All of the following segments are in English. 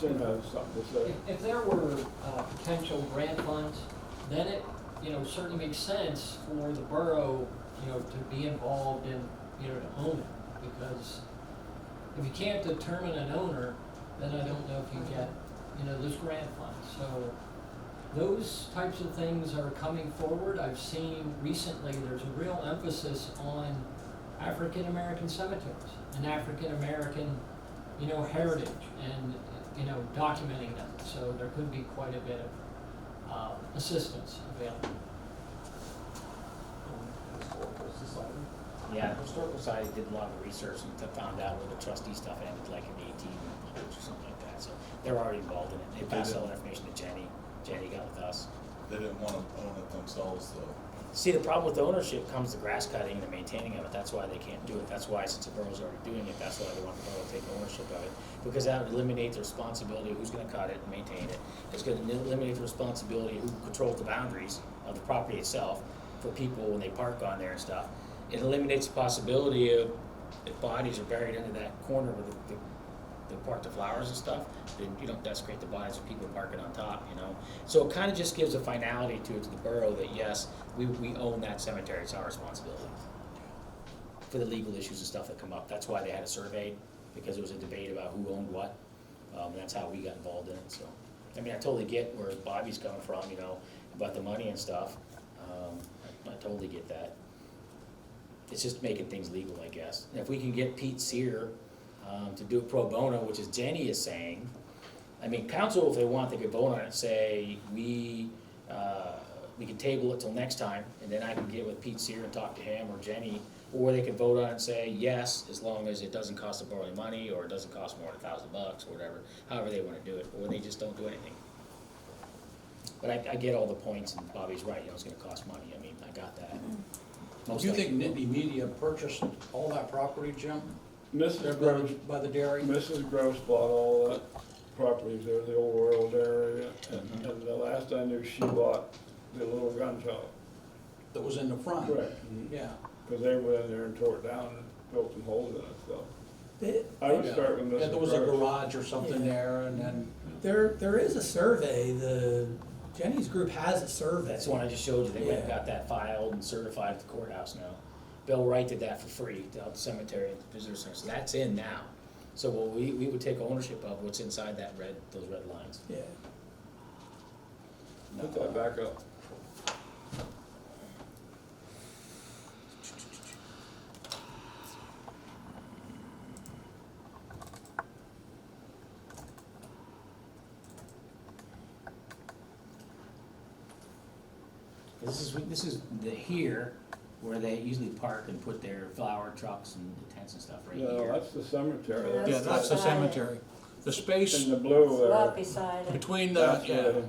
Jim has something to say. If, if there were, uh, potential grant funds, then it, you know, certainly makes sense for the borough, you know, to be involved in, you know, to own it, because if you can't determine an owner, then I don't know if you get, you know, this grant fund, so those types of things are coming forward. I've seen recently, there's a real emphasis on African-American cemeteries and African-American, you know, heritage and, you know, documenting them. So there could be quite a bit of, um, assistance available. Yeah, the historical society did a lot of research and to found out where the trustee stuff ended, like in the eighteen hundreds or something like that, so they're already involved in it, they They passed all the did. information to Jenny, Jenny got with us. They didn't want to own it themselves, though. See, the problem with ownership comes the grass cutting and the maintaining of it, that's why they can't do it, that's why, since the borough's already doing it, that's why they want the borough to take ownership of it. Because that would eliminate the responsibility of who's gonna cut it and maintain it, it's gonna eliminate the responsibility of who controls the boundaries of the property itself for people when they park on there and stuff. It eliminates the possibility of, if bodies are buried under that corner where the, the the park the flowers and stuff, then you don't desecrate the bodies of people parking on top, you know? So it kind of just gives a finality to it to the borough that yes, we, we own that cemetery, it's our responsibility. For the legal issues and stuff that come up, that's why they had it surveyed, because there was a debate about who owned what. Um, that's how we got involved in it, so. I mean, I totally get where Bobby's coming from, you know, about the money and stuff. Um, I- I totally get that it's just making things legal, I guess. And if we can get Pete Sear, um, to do a pro bono, which is Jenny is saying, I mean, council, if they want, they could vote on it, say, we, uh, we can table it till next time, and then I can get with Pete Sear and talk to him or Jenny, or they can vote on it and say, yes, as long as it doesn't cost the borough any money, or it doesn't cost more than a thousand bucks, or whatever, however they wanna do it, or they just don't do anything. But I, I get all the points, and Bobby's right, you know, it's gonna cost money, I mean, I got that. Most Do you likely think will. Nittany Media purchased all that property, Jim? There Mrs. by the- Gross, by the dairy? Mrs. Gross bought all that property there, the old world area, and, Uh-huh. and the last I knew, she bought the little gun shop. That was in the front? Correct. Yeah. Cause they went in there and tore it down and built some holes in it, so. There, I would start with Mrs. Gross. Oh, Yeah, there was a garage or something there, and then, there is a survey, the, Jenny's group has a survey. That's the one I just showed you, they went and Yeah. got that filed and certified at the courthouse now. Bill Wright did that for free, out the cemetery and visitor center, so that's in now. So what we, we would take ownership of what's inside that red, those red lines. Yeah, Put that back up. This is, this is the here, where they usually park and put their flower trucks and tents and stuff right No, here. that's the cemetery. Yeah, yeah, that's the beside it. cemetery. The space In the blue It's uh, not there. beside it. between the, That's yeah, where-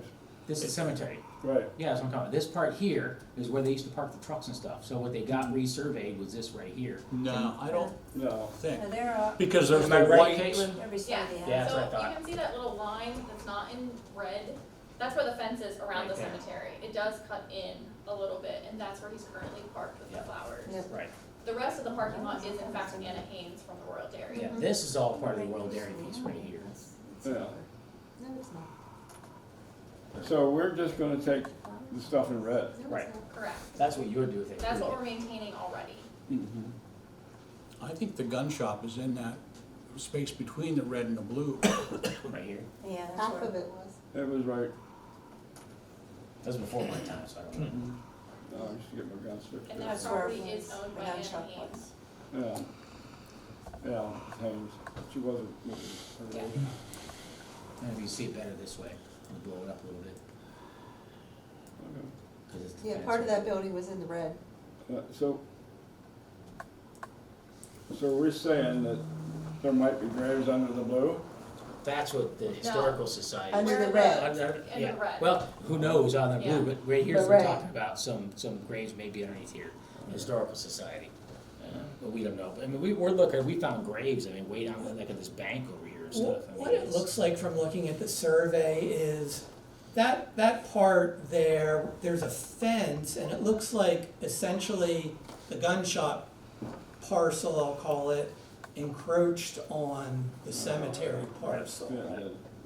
This is cemetery. Right, Yeah, that's what I'm talking about. This part here is where they used to park the trucks and stuff, so what they got resurveyed was this right here. no, I don't no. think, No, they're up, because there's Am I no right, white. Caitlin? every side they have. Yeah. that's So what I thought. you can see that little line that's not in red, that's where the fence is around the Right there. cemetery. It does cut in a little bit, and that's where he's currently parked with the Yeah. flowers. Yep. Right, The rest of the parking lot is in fact Anna Haynes from the Royal Dairy. yeah, this is all part of the Royal Dairy piece right here. Yeah. No, it's not. So we're just gonna take the stuff in red. No, it's Right. not. Correct. That's what you would do with it. That's what we're maintaining already. Mm-hmm. I think the gun shop is in that space between the red and the blue. Right here. Yeah, that's Half where. of it was. It was right, That was before my time, so I don't know. no, oh, I just get my gun And stick. that That's where property it is was. owned The by gun Anna shop Haynes. was. Yeah, yeah, Haynes, she wasn't moving. Yeah. Maybe you see it better this way, and blow it up a little bit, Okay. 'cause it's the Yeah, fence part of right that building was in the red. Uh, So, so we're saying that there might be graves under the blue? there. That's what the historical society. Under Where the it red. was. Under- In yeah. the red. Well, who knows on the Yeah. blue, but right here, But we're right. talking about some, some graves maybe underneath here, historical society. Uh, But we don't know, but I mean, we, we're looking, we found graves, I mean, way down, like at this bank over here and stuff. I mean, What it it's- looks like from looking at the survey is, that, that part there, there's a fence, and it looks like essentially the gun shop Oh, parcel, I'll call it, encroached on the cemetery parcel. Yeah,